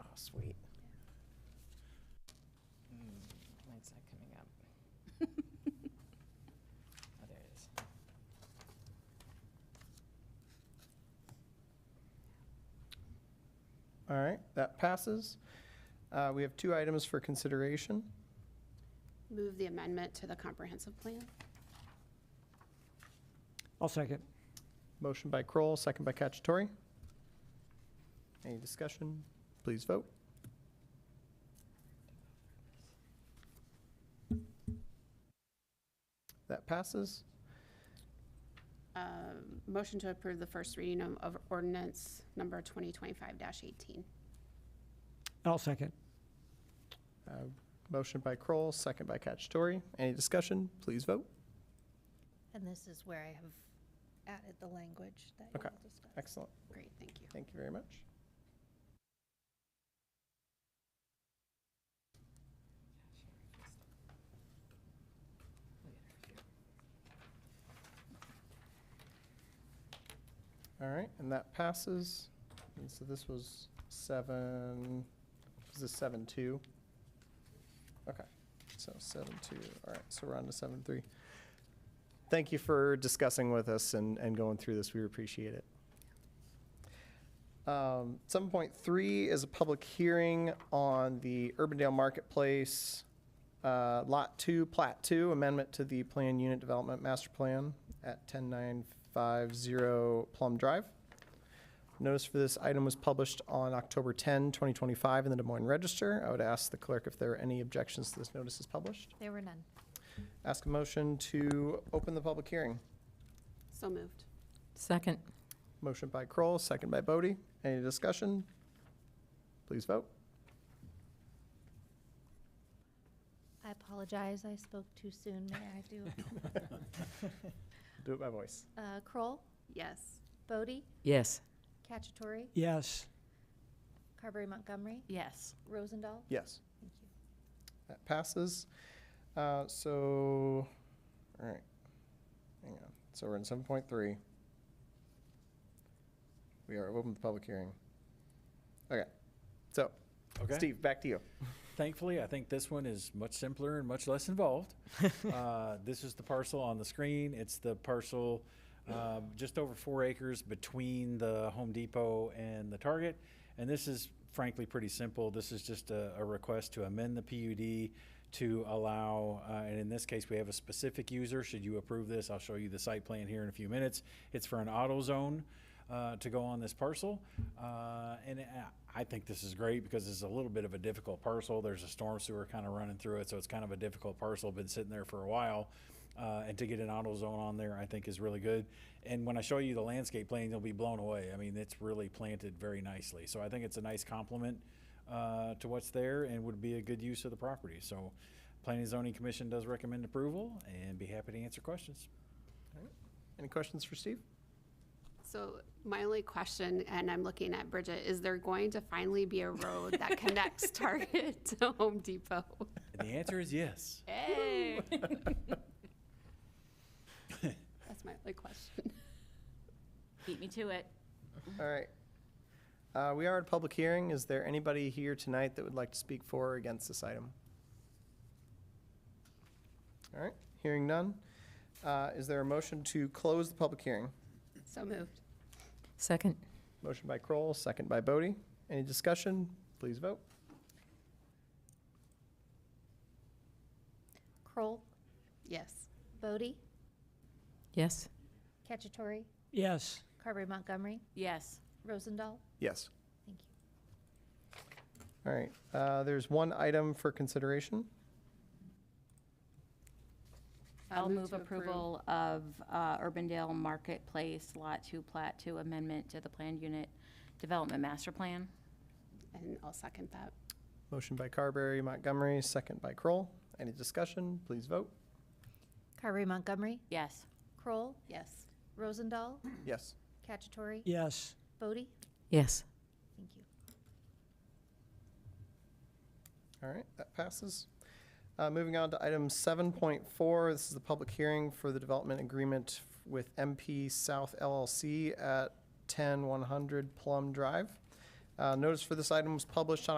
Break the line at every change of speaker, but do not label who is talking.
Oh,
sweet. Hmm, When's that coming up? Oh, there it is.
All right, that passes. Uh, We have two items for consideration.
Move the amendment to the comprehensive plan.
I'll second.
Motion by Kroll, second by Cacciatore. Any discussion? Please vote. That passes.
Uh, Motion to approve the first reading of- of ordinance number 2025-18.
I'll second.
Uh, Motion by Kroll, second by Cacciatore. Any discussion? Please vote.
And this is where I have added the language that you
Okay.
all discussed.
Excellent.
Great, thank you.
Thank you very much. All right, and that passes. And so this was seven, was this seven two? Okay, so seven two, all right, so we're on to seven three. Thank you for discussing with us and, and going through this. We appreciate it. Um, 7.3 is a public hearing on the Urbandale Marketplace, uh, Lot 2, Plat 2, amendment to the Plan Unit Development Master Plan at 10950 Plum Drive. Notice for this item was published on October 10, 2025 in the Des Moines Register. I would ask the clerk if there are any objections to this notice is published.
There were none.
Ask a motion to open the public hearing.
So moved.
Second.
Motion by Kroll, second by Bodie. Any discussion? Please vote.
I apologize, I spoke too soon. May I do?
Do it by voice.
Uh, Kroll,
Yes.
Bodie,
Yes.
Cacciatore,
Yes.
Carberry Montgomery,
Yes.
Rosendahl.
Yes,
Thank you.
that passes. Uh, So, all right, hang on. So we're in seven point three. We are open to the public hearing. Okay, so
Okay.
Steve, back to you.
Thankfully, I think this one is much simpler and much less involved. Uh, This is the parcel on the screen. It's the parcel um, just over four acres between the Home Depot and the Target. And this is frankly pretty simple. This is just a a request to amend the PUD to allow, uh, and in this case, we have a specific user. Should you approve this, I'll show you the site plan here in a few minutes. It's for an auto zone uh, to go on this parcel. Uh, And I- I think this is great because it's a little bit of a difficult parcel. There's a storm sewer kind of running through it, so it's kind of a difficult parcel, been sitting there for a while. Uh, And to get an auto zone on there, I think is really good. And when I show you the landscape plan, you'll be blown away. I mean, it's really planted very nicely. So I think it's a nice complement uh, to what's there and would be a good use of the property. So Planning and Zoning Commission does recommend approval and be happy to answer questions.
Any questions for Steve?
So my only question, and I'm looking at Bridget, is there going to finally be a road that connects Target to Home Depot?
And the answer is yes.
Hey! That's my only question.
Beat me to it.
All right. Mm-hmm. Uh, We are at a public hearing. Is there anybody here tonight that would like to speak for or against this item? All right, hearing none. Uh, Is there a motion to close the public hearing?
So moved.
Second.
Motion by Kroll, second by Bodie. Any discussion? Please vote.
Kroll,
Yes.
Bodie,
Yes.
Cacciatore,
Yes.
Carberry Montgomery,
Yes.
Rosendahl.
Yes.
Thank you.
All right, uh, there's one item for consideration.
I'll move
to approve.
approval of uh, Urbandale Marketplace Lot 2 Plat 2 Amendment to the Planned Unit Development Master Plan.
And I'll second that.
Motion by Carberry, Montgomery, second by Kroll. Any discussion? Please vote.
Carberry Montgomery,
Yes.
Kroll,
Yes.
Rosendahl,
Yes.
Cacciatore,
Yes.
Bodie.
Yes.
Thank you.
All right, that passes. Uh, Moving on to item 7.4, this is the public hearing for the development agreement with MP South LLC at 10100 Plum Drive. Uh, Notice for this item was published on